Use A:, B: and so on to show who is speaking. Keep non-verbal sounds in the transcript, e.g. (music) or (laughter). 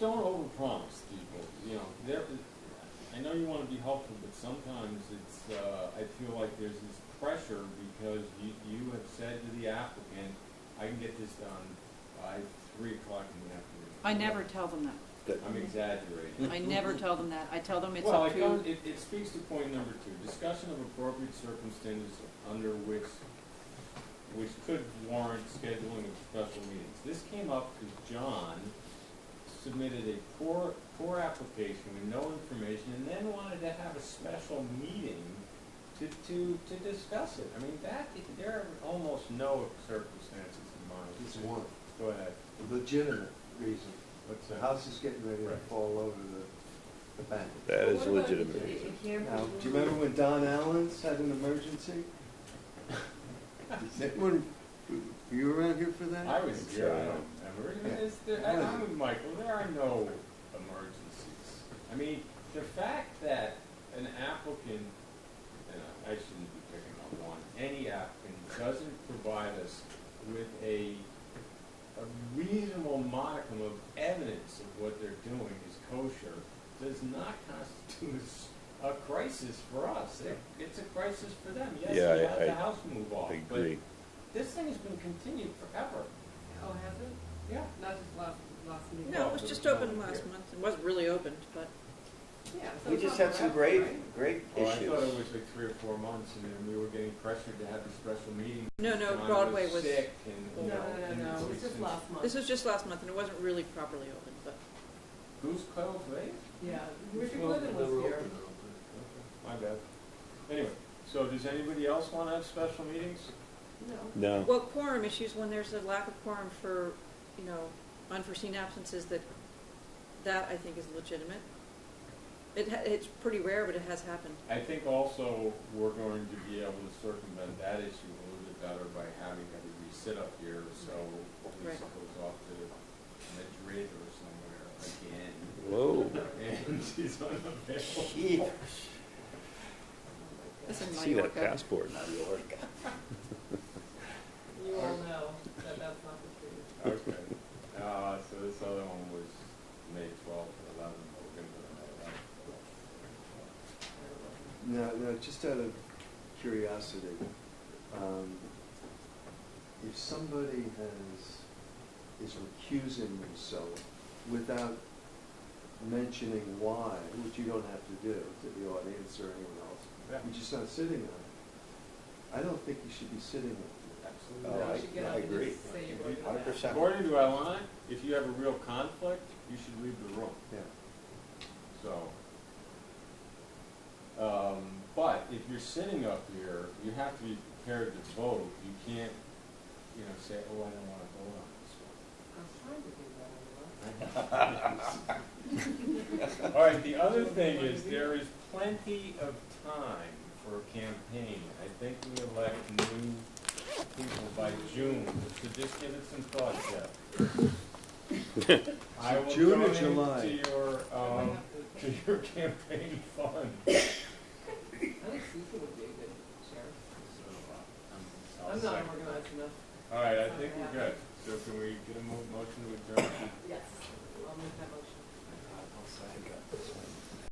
A: don't overpromise people, you know, there, I know you wanna be helpful, but sometimes it's, uh, I feel like there's this pressure because you, you have said to the applicant, I can get this done by three o'clock in the afternoon.
B: I never tell them that.
C: Good.
A: I'm exaggerating.
B: I never tell them that. I tell them it's
A: Well,
B: up
A: it goes,
B: to,
A: it, it speaks to point number two, discussion of appropriate circumstances under which, which could warrant scheduling of special meetings. This came up because John submitted a poor, poor application with no information and then wanted to have a special meeting to, to, to discuss it. I mean, that, there are almost no circumstances in mind.
D: It's one,
A: Go ahead,
D: a legitimate reason.
A: what's
D: The
A: that?
D: house is getting ready to
A: Right.
D: fall over the, the bank.
C: That is
E: What about
C: legitimate.
E: if-
C: reason.
E: if there
D: Now,
E: was-
D: do you remember when Don Allen's had an emergency? That one, you were around here for that?
A: I was
C: It's,
A: here, I
C: uh,
A: don't remember. I mean,
D: yeah.
A: it's- there- I- I'm with Michael, there are no emergencies. I mean, the fact that an applicant, and I I shouldn't be picking on one, any applicant doesn't provide us with a, a reasonable modicum of evidence of what they're doing is kosher does not constitute a crisis for us. It- It's a crisis for them. Yes,
C: Yeah,
A: we
C: I-
A: had the
C: I-
A: house move off,
C: I
A: but
C: agree.
A: this thing has been continued forever.
E: Oh, has it?
A: Yeah.
E: Not just last, last meeting?
B: no, it was just opened last month. It wasn't really opened, but
E: Yeah. so
C: We
E: it's
C: just
E: not
C: had some
E: forever,
C: great,
E: right?
C: great
A: Oh, I thought it
C: issues.
A: was like three or four months, and then we were getting pressured to have a special meeting.
B: No, no,
A: John
B: Broadway was-
A: sick, and, you
E: No,
A: know,
E: no,
A: and
E: no, no, it was
A: it's-
E: just last month.
B: this was just last month and it wasn't really properly opened, but
A: Goose Cove Lake?
E: Yeah, Richard Glidden was here.
A: My bad. Anyway, so does anybody else want to have special meetings?
E: No.
C: No.
B: Well, quorum issues, when there's a lack of quorum for, you know, unforeseen absences, that, that I think is legitimate. It, ha- it's pretty rare, but it has happened.
A: I think also we're going to be able to circumvent that issue a little bit better by having everybody sit up here, so Lisa
B: Right.
A: goes off to Madrid or somewhere again, (laughs)
C: Whoa.
A: and she's unavailable.
D: Gee,
B: It's in
C: See that
B: Mallorca.
C: passport.
E: You all know that that's not the truth.
A: Okay. Uh, so this other one was May twelfth, eleven, but we're gonna go to May eleventh.
D: No, no, just out of curiosity, um, if somebody has, is recusing themselves without mentioning why, which you don't have to do to the audience or anyone else, you're just not sitting on it. I don't think you should be sitting on it.
A: Absolutely.
C: Oh,
E: No,
C: I-
E: you should get
C: I
E: up and
C: agree.
E: just say you were
A: Hundred
E: gonna-
C: 100%.
A: According to Alana, if you have a real conflict, you should leave the room,
D: Yeah.
A: so. Um, but if you're sitting up here, you have to be prepared to vote, you can't, you know, say, oh, I don't wanna vote on this one.
E: I'm trying to do that,
A: All right, the other thing is, there is plenty of time for a campaign. I think we elect new people by June, so just give it some thought, Jeff.
D: (laughs)
A: I will
D: June or
A: donate
D: July?
A: to your,
E: I don't know. I
A: um, (laughs)
E: might have
A: to your campaign fund.
E: to- I think Susan would be a good sheriff.
A: So, uh,
E: I'm not
A: second.
E: organized enough.
A: All right, I think we're good. So can we get a mo- motion to adjourn?
E: Yes. I'll make that motion.